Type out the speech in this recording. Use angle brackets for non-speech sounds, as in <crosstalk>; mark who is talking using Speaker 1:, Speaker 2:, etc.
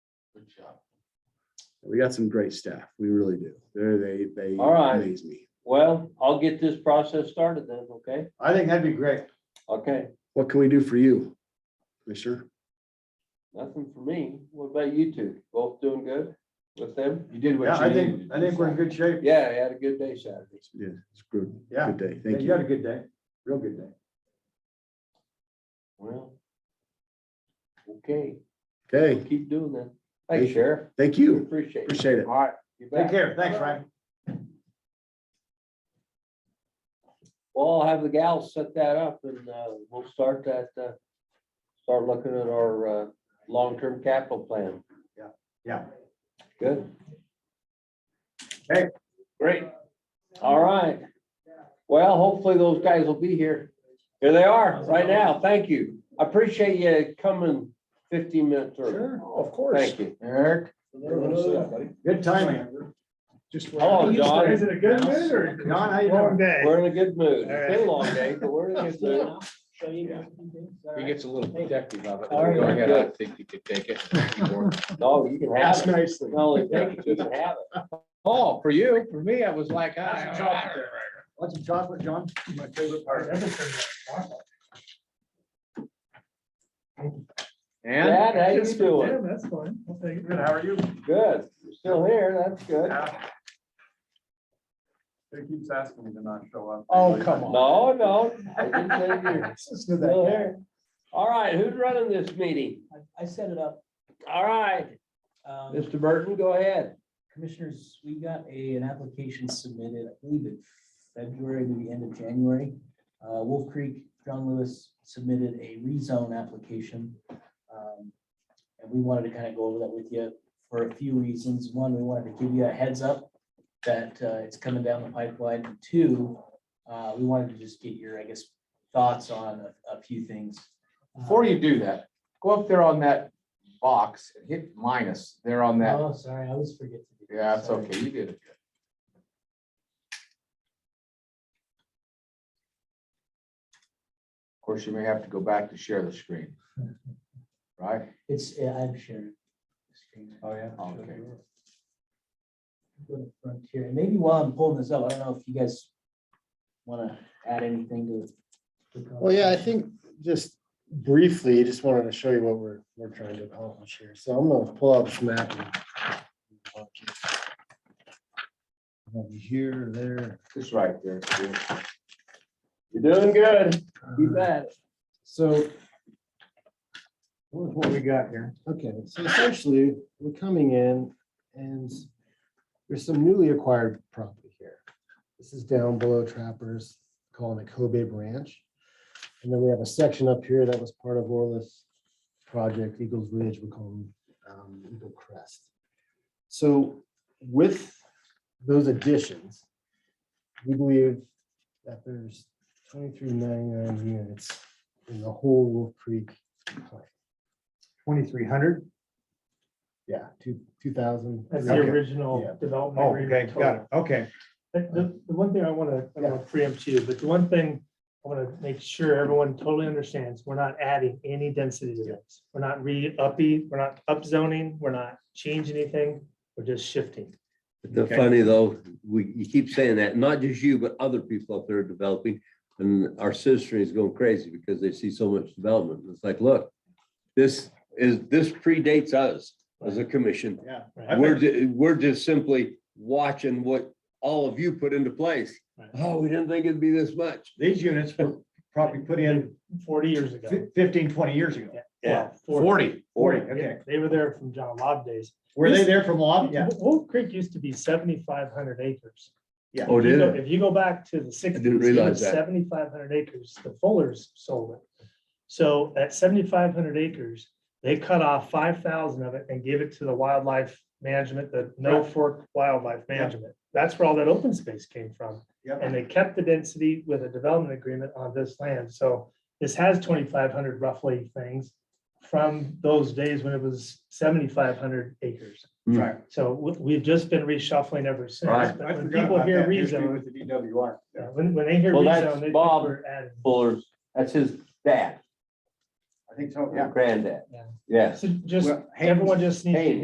Speaker 1: job.
Speaker 2: We got some great staff. We really do. They're, they, they
Speaker 3: All right.
Speaker 2: amaze me.
Speaker 3: Well, I'll get this process started then, okay?
Speaker 1: I think that'd be great.
Speaker 3: Okay,
Speaker 2: What can we do for you? Commissioner?
Speaker 3: nothing for me. What about you two? Both doing good with them?
Speaker 4: You did
Speaker 1: Yeah,
Speaker 4: what
Speaker 1: I
Speaker 4: you needed.
Speaker 1: think, I think we're in good shape.
Speaker 3: Yeah, I had a good day Saturday.
Speaker 2: Yeah, it's good.
Speaker 1: Yeah.
Speaker 2: Good day.
Speaker 1: Yeah,
Speaker 2: Thank
Speaker 1: You had a
Speaker 2: you.
Speaker 1: good day, real good day.
Speaker 3: Well. Okay,
Speaker 2: Okay,
Speaker 3: keep doing that.
Speaker 2: Thank
Speaker 3: Thanks,
Speaker 2: you.
Speaker 3: Sheriff.
Speaker 2: thank you.
Speaker 3: Appreciate it.
Speaker 2: Appreciate it.
Speaker 3: All right. you
Speaker 1: Take
Speaker 3: bet.
Speaker 1: care. Thanks, Ryan.
Speaker 3: Well, I'll have the gals set that up and uh, we'll start that, uh, start looking at our uh, long-term capital plan.
Speaker 1: Yeah.
Speaker 3: Good.
Speaker 1: Okay.
Speaker 3: Great. All right. Well, hopefully those guys will be here. Here they are right now. Thank you. I appreciate you coming fifteen minutes early.
Speaker 5: Oh,
Speaker 1: of
Speaker 3: Thank you.
Speaker 1: Eric. Good timing.
Speaker 3: Hello, John.
Speaker 5: Is it a good mood or?
Speaker 1: John, how you doing?
Speaker 5: Long day.
Speaker 3: We're in a good mood.
Speaker 5: All right.
Speaker 3: It's been a long day, but we're in a good mood.
Speaker 4: He gets a little protective of it.
Speaker 3: All right.
Speaker 4: Go ahead, I think you could
Speaker 3: <laughs>
Speaker 4: take it.
Speaker 3: No, you can have it.
Speaker 5: nicely.
Speaker 3: Not only take it, you can have it.
Speaker 4: Oh, for you, for me, I was like,
Speaker 5: That's a chocolate there,
Speaker 4: I.
Speaker 1: Want some chocolate, John?
Speaker 5: My favorite part.
Speaker 4: And
Speaker 3: Dad, how you doing?
Speaker 5: That's fine. I'll take it.
Speaker 1: How are you?
Speaker 3: Good. You're still here. That's good.
Speaker 1: He keeps asking me to not show up.
Speaker 5: Oh, come on.
Speaker 3: No, no. I didn't say you're
Speaker 5: Listen to
Speaker 3: Still
Speaker 5: that
Speaker 3: here. All right, who's running this meeting?
Speaker 6: I, I set it up.
Speaker 3: All right,
Speaker 6: Um,
Speaker 3: Mr. Burton, go ahead.
Speaker 6: Commissioners, we got a, an application submitted, I believe in February, maybe end of January. Uh, Wolf Creek, John Lewis submitted a rezone application. Um, And we wanted to kind of go over that with you for a few reasons. One, we wanted to give you a heads up that uh, it's coming down the pipeline. And Two, uh, we wanted to just get your, I guess, thoughts on a, a few things.
Speaker 4: before you do that, go up there on that box and hit minus there on that.
Speaker 6: Oh, sorry, I always forget to do. that.
Speaker 4: Yeah, that's
Speaker 6: Sorry.
Speaker 4: okay. You did it. good. Of course, you may have to go back to share the screen. Right?
Speaker 6: It's, yeah, I'm sharing. the screen.
Speaker 4: Oh, yeah. Okay.
Speaker 6: Go to Frontier, and maybe while I'm pulling this up, I don't know if you guys wanna add anything to. the
Speaker 7: Well, yeah, I
Speaker 6: conversation.
Speaker 7: think just briefly, just wanted to show you what we're, we're trying to accomplish here. So I'm gonna pull out this map. and- Over Here, there.
Speaker 4: Just right there.
Speaker 3: You're doing good. Keep at it.
Speaker 7: So. What we got here? Okay, so essentially, we're coming in and there's some newly acquired property here. This is down below Trappers, calling it Kobe Ranch. And then we have a section up here that was part of Orla's project, Eagles Ridge, we call them um, Eagle Crest. So with those additions, we believe that there's twenty-three ninety-nine units in the whole Wolf Creek.
Speaker 5: Twenty-three hundred?
Speaker 7: Yeah, two, two thousand.
Speaker 5: That's the
Speaker 7: Yeah.
Speaker 5: original development. agreement total.
Speaker 7: it. Okay.
Speaker 5: The, the- the one thing I want to, I don't want to preempt you, but the one thing I want to make sure everyone totally understands, we're not adding any density to this. We're not re-uppy, we're not upzoning, we're not changing anything, we're just shifting.
Speaker 8: The
Speaker 5: Okay.
Speaker 8: funny though, we, you keep saying that, not just you, but other people up there are developing. And our sister is going crazy because they see so much development. It's like, look, this is, this predates us as a commission.
Speaker 7: Yeah.
Speaker 5: Right.
Speaker 8: We're, ju- we're just simply watching what all of you put into place.
Speaker 5: Right.
Speaker 8: Oh, we didn't think it'd be this much.
Speaker 9: These units were probably put in
Speaker 5: Forty years ago.
Speaker 9: fif- 15, 20 years ago.
Speaker 5: Well,
Speaker 4: Forty.
Speaker 9: Forty,
Speaker 5: Yeah,
Speaker 9: okay.
Speaker 5: They were there from John Lobb days.
Speaker 9: Were they there from Lob? Yeah.
Speaker 5: Wo- Wolf Creek used to be seventy-five hundred acres.
Speaker 8: Oh,
Speaker 5: If you
Speaker 8: did
Speaker 5: go-
Speaker 8: it?
Speaker 5: If you go back to the sixties.
Speaker 8: realize that.
Speaker 5: Seventy-five hundred acres, the Fullers sold it. So at seventy-five hundred acres, they cut off five thousand of it and gave it to the wildlife management, the No Fork Wildlife Management. That's where all that open space came from.
Speaker 9: Yep.
Speaker 5: And they kept the density with a development agreement on this land. So this has twenty-five hundred roughly things from those days when it was seventy-five hundred acres.
Speaker 3: Hmm.
Speaker 9: Right.
Speaker 5: So we- we've just been reshuffling ever since.
Speaker 8: Right.
Speaker 5: But When people hear rezone,
Speaker 9: With the DWR.
Speaker 5: yeah, when, when they hear
Speaker 3: Well, that's
Speaker 5: rezone, they think
Speaker 3: Bob.
Speaker 5: we're adding.
Speaker 3: Fuller's, that's his dad,
Speaker 9: I think so, yeah.
Speaker 3: granddad.
Speaker 5: Yeah.
Speaker 3: Yes.
Speaker 5: So Just,
Speaker 9: Well, Haynes-
Speaker 5: everyone just needs to
Speaker 3: Haynes.